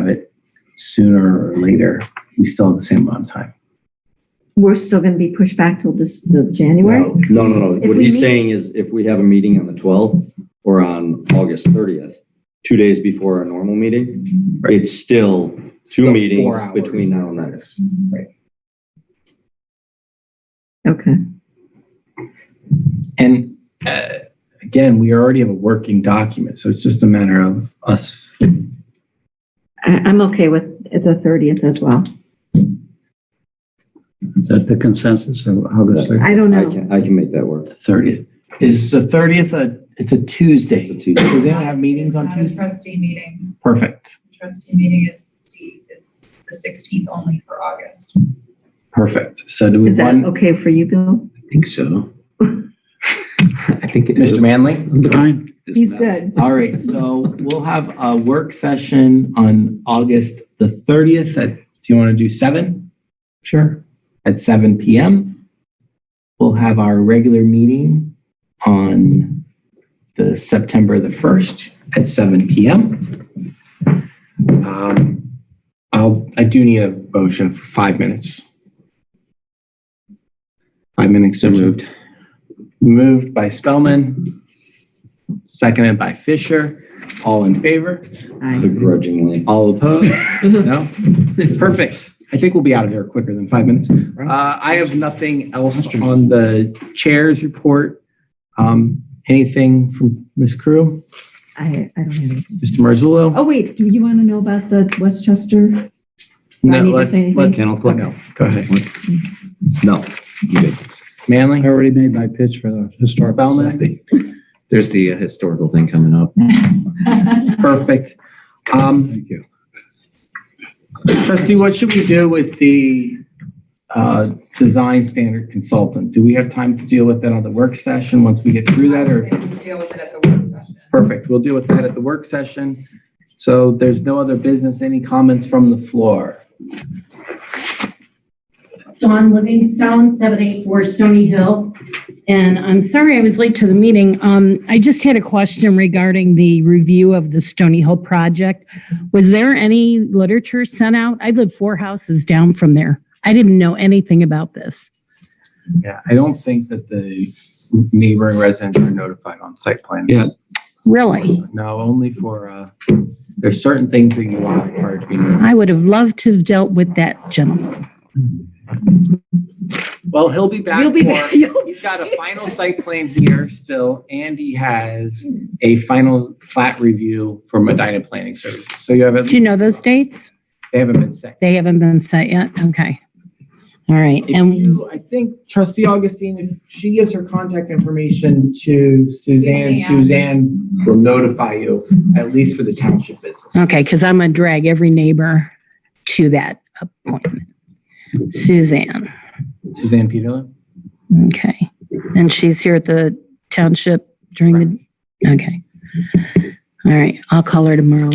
have it sooner or later, we still have the same amount of time. We're still going to be pushed back till just till January? No, no, no. If What we he's meet- saying is if we have a meeting on the 12th or on August 30th, two days before our normal meeting, Right. it's still two four meetings hours. between now and then. Okay. And uh, again, we already have a working document, so it's just a matter of us. I, I'm okay with the 30th as well. Is that the consensus of August 30th? I don't I know. can, I can make that work. The 30th Is the thirtieth a, it's a It's a Tuesday. Tuesday. Does anyone have meetings on Not a Tuesday? Trustee meeting, Perfect, trustee meeting is the, is the sixteenth only for August. perfect. So do we Is that want, okay for you, Bill? I think so. I think it is. Mr. Manley? I'm fine. This He's mess. good. All right, so we'll have a work session on August the thirtieth at, do you want to do seven? Sure. At seven PM. We'll have our regular meeting on the September the first at seven PM. um, I'll, I do need a motion for five minutes. Five minutes so moved. Moved by Spellman, seconded by Fisher. All in favor? Mm-hmm. I Begrudgingly. All opposed? No? Perfect. I think we'll be out of here quicker than five minutes. Uh, I have nothing else on the chair's report. Um, anything from Ms. Crew, I, I don't have any. Mr. Marzullo? Oh, wait, do you want to know about the Westchester? Do I No, need to let's- say let's- Kennel anything? Club? No, go ahead. No. you did. Manley? I already made my pitch for the historical. Spellman? society. There's the uh, historical thing coming up. Perfect. Um, Thank you. trustee, what should we do with the, uh, design standard consultant? Do we have time to deal with that on the work session once we get through that or? We can Deal with it at the work session. Perfect. We'll deal with that at the work session. So there's no other business. Any comments from the floor? Dawn Livingstone, 784 Stony Hill. And I'm sorry I was late to the meeting. Um, I just had a question regarding the review of the Stony Hill project. Was there any literature sent out? I live four houses down from there. I didn't know anything about this. Yeah, I don't think that the neighboring residents are notified on site plan. Yeah. Really? No, only for, uh, there's certain things that you are required to be notified. I would have loved to have dealt with that gentleman. Well, he'll be back. You'll be, for- back. You'll be He's got a final site plan here still, and he has a final plat review for Medina Planning Services. So you have. at Do you know least- those dates? They haven't been set. They haven't been set yet? Okay. All right. If And you, I think trustee Augustine, if she gives her contact information to Suzanne, Suzanne. Suzanne will notify you, at least for the township business. Okay, because I'm gonna drag every neighbor to that appointment. Suzanne, Suzanne Peterlin? okay. And she's here at the township during the, okay. All right, I'll call her tomorrow,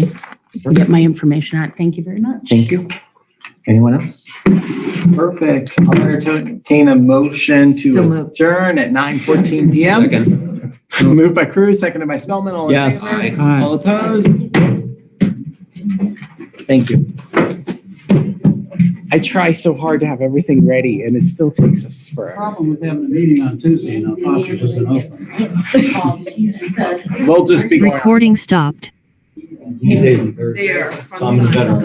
get my information out. Thank you very much. you. Anyone else? Perfect. I'll entertain a motion So to moved. adjourn at nine fourteen PM. Moved by Cruz, seconded by Spellman. All in Yes. favor? Aye. Aye. All opposed? Thank you. I try so hard to have everything ready and it still takes us forever. Problem with having a meeting on Tuesday and our office isn't open. We'll just be going. Recording stopped. Tuesdays and Thursdays. There. So I'm the veteran.